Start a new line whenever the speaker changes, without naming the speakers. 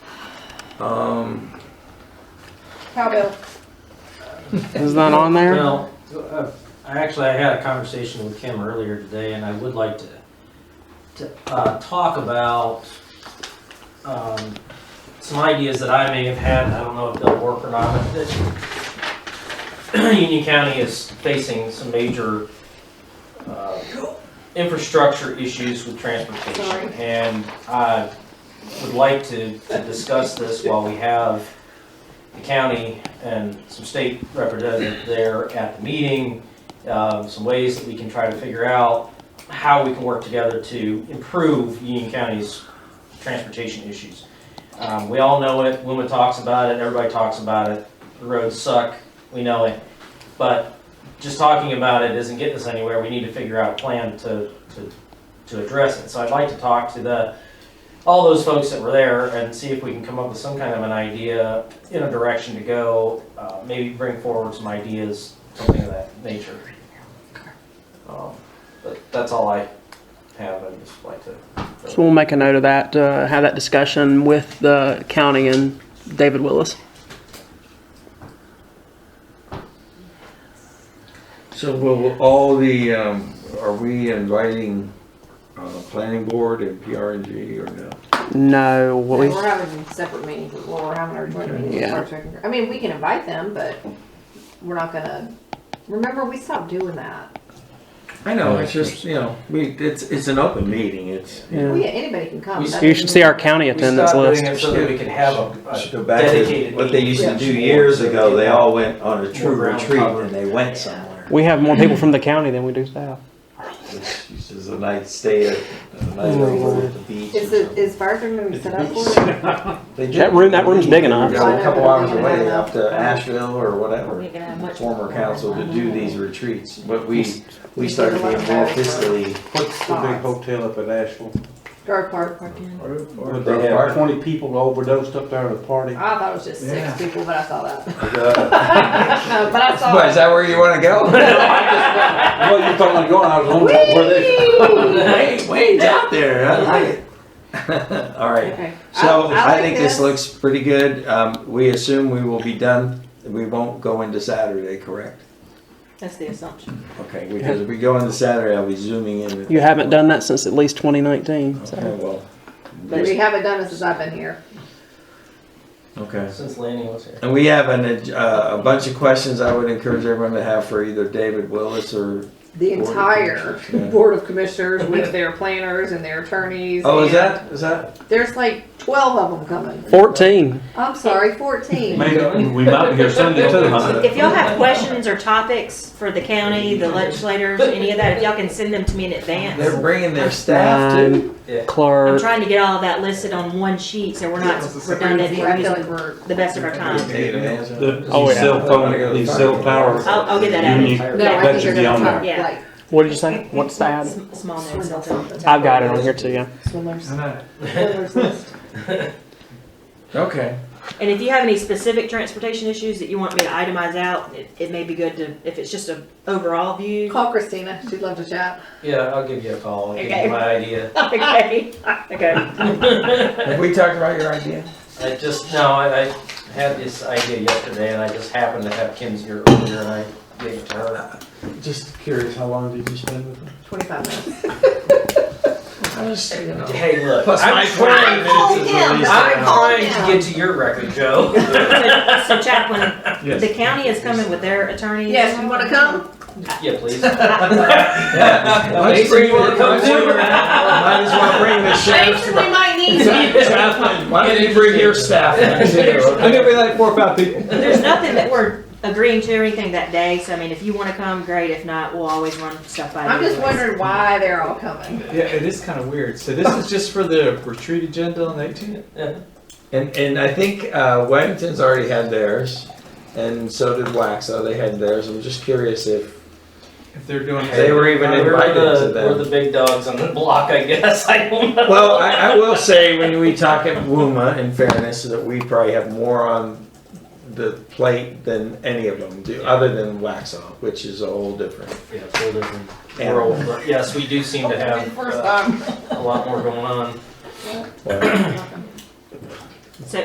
Um,
Cowbell.
Is that on there?
Well, uh, I actually, I had a conversation with Kim earlier today, and I would like to, to, uh, talk about, um, some ideas that I may have had, and I don't know if they'll work or not, but this- Union County is facing some major, uh, infrastructure issues with
Sorry.
transportation. And I would like to, to discuss this while we have the county and some state representatives there at the meeting, um, some ways that we can try to figure out how we can work together to improve Union County's transportation issues. Um, We all know it, Wilma talks about it, everybody talks about it, the roads suck, we know it. But just talking about it isn't getting us anywhere, we need to figure out a plan to, to, to address it. So I'd like to talk to the, all those folks that were there and see if we can come up with some kind of an idea in a direction to go, uh, maybe bring forward some ideas, something of that nature. Um, But that's all I have, I'd just like to.
So we'll make a note of that, uh, have that discussion with the county and David Willis.
so will all the, um, are we inviting, uh, planning board and PRG or no?
No, what we,
We're having separate meetings, well, we're having our joint meeting. with
Yeah.
Parks and Rec. I mean, we can invite them, but we're not gonna, remember, we stopped doing that.
I know, it's just, you know, we, it's, it's an open meeting, it's.
Well,
yeah.
yeah, anybody can come.
We-
That
You should see our county
We
attendance
stopped
list.
doing it So that we could have a- a
Go back to
dedicated
what they used to
meeting.
do years ago, they all went on a
More
true
ground
retreat
cover.
and they went somewhere.
We have more people from the county than we do staff.
This is a nice stay, at a nice over at the beach.
Is it, is Barker gonna be set up for it?
That room- that room's big enough.
You go a couple hours away up to Asheville or whatever, former council to do these retreats, but we, we started being more fiscally.
What's the big hotel up at Asheville?
Dark Park, Park Inn.
Would they have twenty people overdosed up there at a party?
I thought it was just six people, but I saw that.
But
But I saw.
is that where you wanna go?
Well, you thought I was going, I was wondering where they.
Wait, wait, out there, I like it. All right.
Okay.
So
I-
I think this looks pretty good. Um, we assume we will be done. We won't go into Saturday, correct?
That's the assumption.
Okay, because if we go into Saturday, I'll be zooming in. with-
You haven't done that since at least 2019,
Okay,
so.
well,
We haven't done it since I've been here.
okay.
Since Lanny was here.
And we have an, ag- uh, a bunch of questions I would encourage everyone to have for either David Willis or,
The
Board of
entire
Commissioners, yeah.
Board of Commissioners with their planners and their attorneys.
oh, is
and-
that, is that?
There's like twelve of them coming.
14.
I'm sorry, fourteen.
Maybe, we might be here Sunday too,
If y'all have questions or topics for the county, the legislators, any of that, if y'all can send them to me in
They're
advance.
bringing their staff to.
Nine,
Yeah.
I'm
Clerk,
trying to get all of that listed on one sheet, so we're not redundant,
I
we're
feel like
using
we're.
the best of our time.
Oh,
These
yeah.
cell phone, these cell towers.
I'll, I'll get that
Union-
added.
No, I
Yeah.
That
think
should
you're
be
gonna
on
talk
there.
like
what did you say? What's that?
S- Small notes, I'll tell them.
I've got it on here too, yeah.
swindlers, swindlers list.
Okay,
And if you have any specific transportation issues that you want me to itemize out, it, it may be good to, if it's just a overall view.
Call Christina, she'd love to chat.
Yeah, I'll give you a call, I'll give
Okay.
you my idea.
Okay, okay.
have we talked about your idea?
I just, no, I, I had this idea yesterday and I just happened to have Kim's here earlier and I gave it to her.
Just curious, how long did you spend with them?
Twenty-five
Mm-hmm.
minutes.
I was, you know.
Hey, look,
Plus my
I'm trying,
twenty minutes is
him.
at least an
I'm
hour.
trying to get to your record, Joe.
So so Chaplain, the county is coming with their attorneys.
Yes, you wanna come?
Yeah, please.
Let's bring it, let's bring it. Might as well bring the sheriff's.
Jason, we might need you.
Why don't you bring your staff? I'm gonna be like four or five people.
There's nothing that we're agreeing to or anything that day, so I mean, if you wanna come, great, if not, we'll always run stuff by you.
I'm just
anyways.
wondering why they're all coming.
Yeah, it is kind of weird. So this is just for the retreat agenda on the 18th.
And, and I think, uh, Weddington's already had theirs, and so did Waxaw, they had theirs, I'm just curious if,
If they're doing
They were even
We're
invited
the-
to them.
We're the big dogs on the block, I guess, I don't know.
well, I, I will say, when we talk at WUMA, in fairness, that we probably have more on the plate than any of them do, other than Waxaw, which is a whole different.
Yeah, it's a whole different world, but yes, we do seem to have
First
uh,
time.
a lot more going on.
Well,
Welcome.